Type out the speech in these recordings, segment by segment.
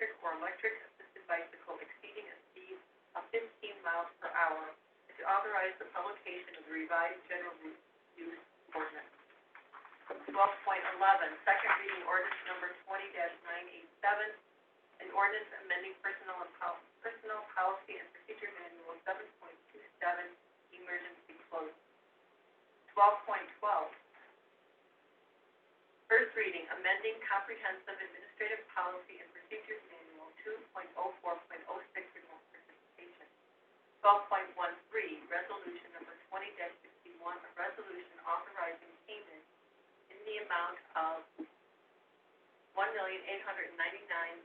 E, electric assisted bicycle exceeding a speed of fifteen miles per hour, and to authorize the publication of the revised general ru- use ordinance. Twelve point eleven, second reading ordinance number twenty nine eight seven, an ordinance amending personnel and pol- personnel policy and procedure manual seven point two seven, emergency clause. Twelve point twelve, First reading, amending comprehensive administrative policy and procedures manual two point oh four point oh six, remote participation. Twelve point one three, resolution number twenty sixty-one, a resolution authorizing payment in the amount of one million eight hundred ninety-nine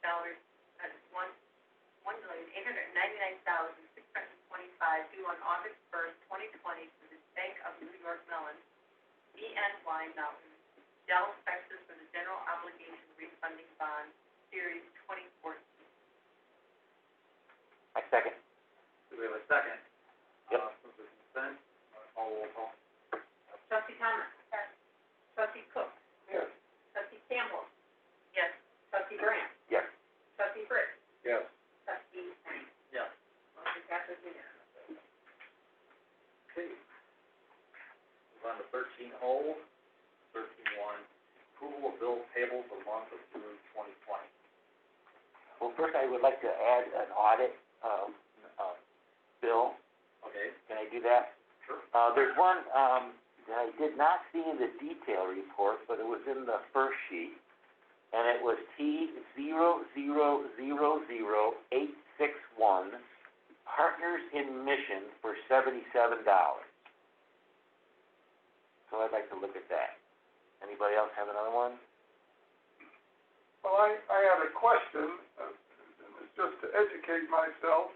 dollars, uh, one, one million eight hundred ninety-nine thousand six hundred twenty-five due on August first, twenty twenty, to the Bank of New York Mellon, BNY Mellon, Dallas, Texas, for the general obligation refunding bond, series twenty fourteen. I second. Do we have a second? Yep. Uh, move the consent, uh, call roll call. Trustee Thomas? Yes. Trustee Cook? Yes. Trustee Campbell? Yes. Trustee Brandt? Yes. Trustee Britt? Yes. Trustee Grant? Yes. Motion passes unanimously. Okay. Move on to thirteen oh. O, thirteen one, approval of bill payable for the month of June twenty twenty. Well, first I would like to add an audit, um, uh, bill. Okay, Can I do that? sure. Uh, there's one, um, that I did not see in the detail report, but it was in the first sheet. And it was T zero zero zero zero eight six one, Partners in Mission for seventy-seven dollars. So I'd like to look at that. Anybody else have another one? Well, I, I had a question, uh, and it's just to educate myself.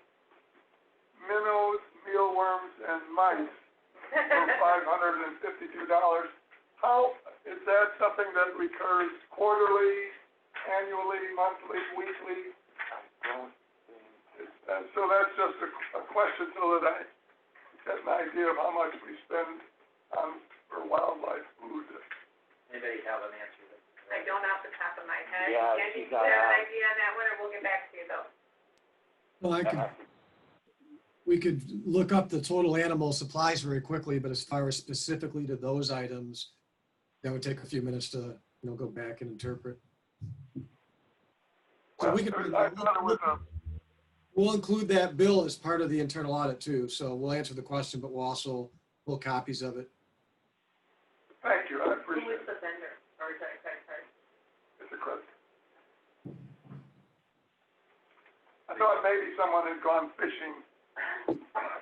Minnows, mealworms, and mice for five hundred and fifty-two dollars. How, is that something that recurs quarterly, annually, monthly, weekly? I don't think. It's- Uh, so that's just a, a question so that I get an idea of how much we spend on, for wildlife food. Anybody have an answer? that- I don't off the top of my head. Yeah, Andy, she's do you have got an a- idea on that one, or we'll get back to you though? Well, I Uh-huh. could, we could look up the total animal supplies very quickly, but as far as specifically to those items, that would take a few minutes to, you know, go back and interpret. So we could, I thought it was a, we'll include that bill as part of the internal audit too, so we'll answer the question, but we'll also, pull copies of it. thank you, I Who is appreciate it, the vendor, or is that, sorry, sorry, it's a question. I thought maybe someone had gone fishing.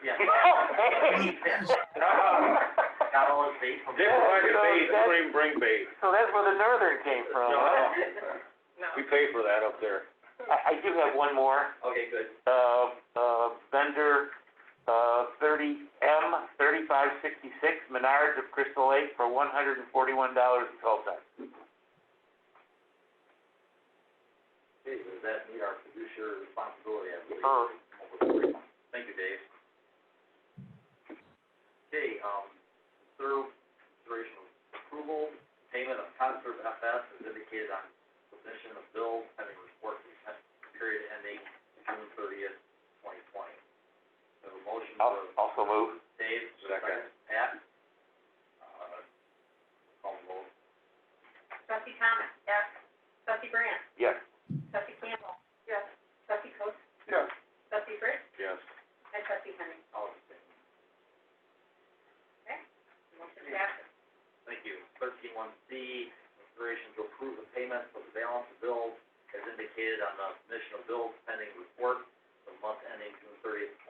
Yeah. Got So all his bait from. Different kind of bait, So that- don't even bring bait. that's where the northern came from. No. no. We pay for that up there. I, I do have one more. Okay, good. uh, uh, vendor, uh, thirty M thirty-five sixty-six, Menards of Crystal Lake for one hundred and forty-one dollars and twelve cents. Okay, does that meet our fiduciary responsibility, I believe? Sure. Thank you, Dave. Okay, um, third consideration of approval, payment of concert FS is indicated on submission of bill having report for the period ending June thirtieth, twenty twenty. So a motion I'll, for also move. Dave, second, Second. Pat. Uh, call the roll. Trustee Thomas? Yes. Trustee Brandt? Yes. Trustee Campbell? Yes. Trustee Cook? Yes, Trustee Britt? Yes. And Trustee Henry? All in favor? Motion passes. Thank you. Thirteen one C, consideration to approve the payment of the balance of bills as indicated on the submission of bills pending report for the month ending June thirtieth,